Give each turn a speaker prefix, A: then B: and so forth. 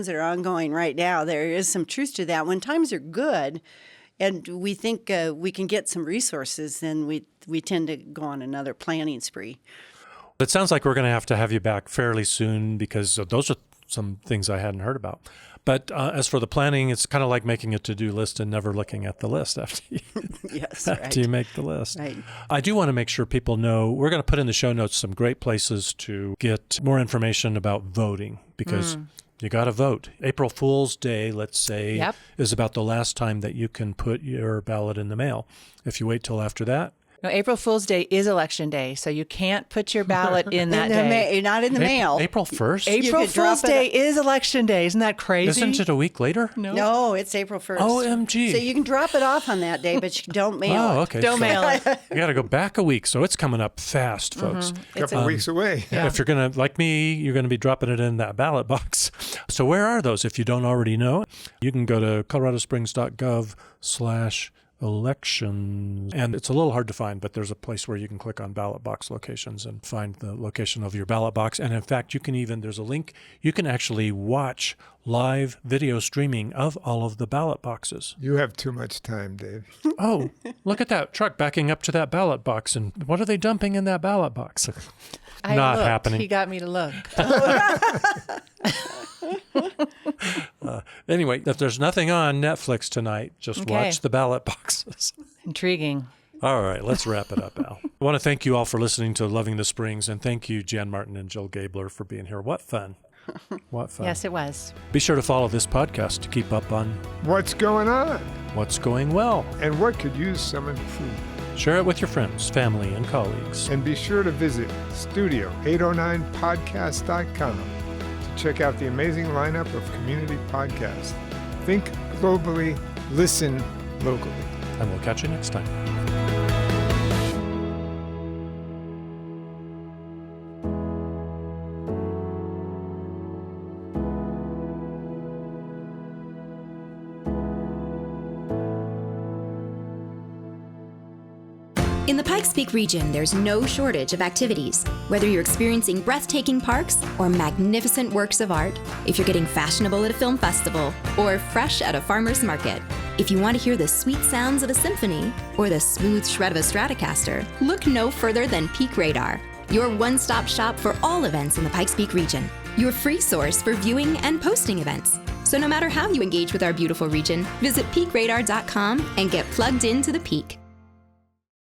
A: that are ongoing right now, there is some truth to that. When times are good, and we think uh, we can get some resources, then we we tend to go on another planning spree.
B: It sounds like we're going to have to have you back fairly soon because those are some things I hadn't heard about. But uh, as for the planning, it's kind of like making a to-do list and never looking at the list after you,
A: Yes,
B: after
A: right.
B: you make the list.
A: Right.
B: I do want to make sure people know we're going to put in the show notes some great places to get more information about voting because
A: Mm.
B: you got to vote. April Fool's Day, let's say,
C: Yep.
B: is about the last time that you can put your ballot in the mail. If you wait till after that,
C: No, April Fool's Day is election day, so you can't put your ballot in
A: In
C: that
A: the
C: day.
A: ma- not in the
B: Ap-
A: mail.
B: April 1st?
A: You
C: April
A: could drop
C: Fool's
A: it-
C: Day is election day. Isn't that crazy?
B: Isn't it a week later? No.
A: No, it's April first.
B: OMG.
A: So you can drop it off on that day, but you don't mail.
B: Oh,
A: it.
B: okay.
C: Don't
B: So
C: mail it.
B: You got to go back a week. So it's coming up fast, folks.
C: It's
D: couple
C: a,
D: weeks away.
B: If you're going to, like me, you're going to be dropping it in that ballot box. So where are those? If you don't already know, you can go to coloradosprings.gov slash elections. And it's a little hard to find, but there's a place where you can click on ballot box locations and find the location of your ballot box. And in fact, you can even, there's a link, you can actually watch live video streaming of all of the ballot boxes.
D: You have too much time, Dave.
B: Oh, look at that truck backing up to that ballot box. And what are they dumping in that ballot box?
C: I
B: Not
C: looked.
B: happening.
C: He got me to look.
B: Anyway, if there's nothing on Netflix tonight, just
C: Okay.
B: watch the ballot boxes.
C: Intriguing.
B: All right, let's wrap it up, Al. I want to thank you all for listening to Loving the Springs, and thank you, Jan Martin and Jill Gabler, for being here. What fun! What fun.
C: Yes, it was.
B: Be sure to follow this podcast to keep up on
D: What's going on?
B: what's going well.
D: And what could use some improvement?
B: Share it with your friends, family, and colleagues.
D: And be sure to visit studio809podcast.com to check out the amazing lineup of community podcasts. Think globally, listen locally.
B: And we'll catch you next time.
E: In the Pikes Peak region, there's no shortage of activities. Whether you're experiencing breathtaking parks or magnificent works of art, if you're getting fashionable at a film festival or fresh at a farmer's market, if you want to hear the sweet sounds of a symphony or the smooth shred of a Stratocaster, look no further than Peak Radar, your one stop shop for all events in the Pikes Peak region, your free source for viewing and posting events. So, no matter how you engage with our beautiful region, visit peakradar.com and get plugged into the peak.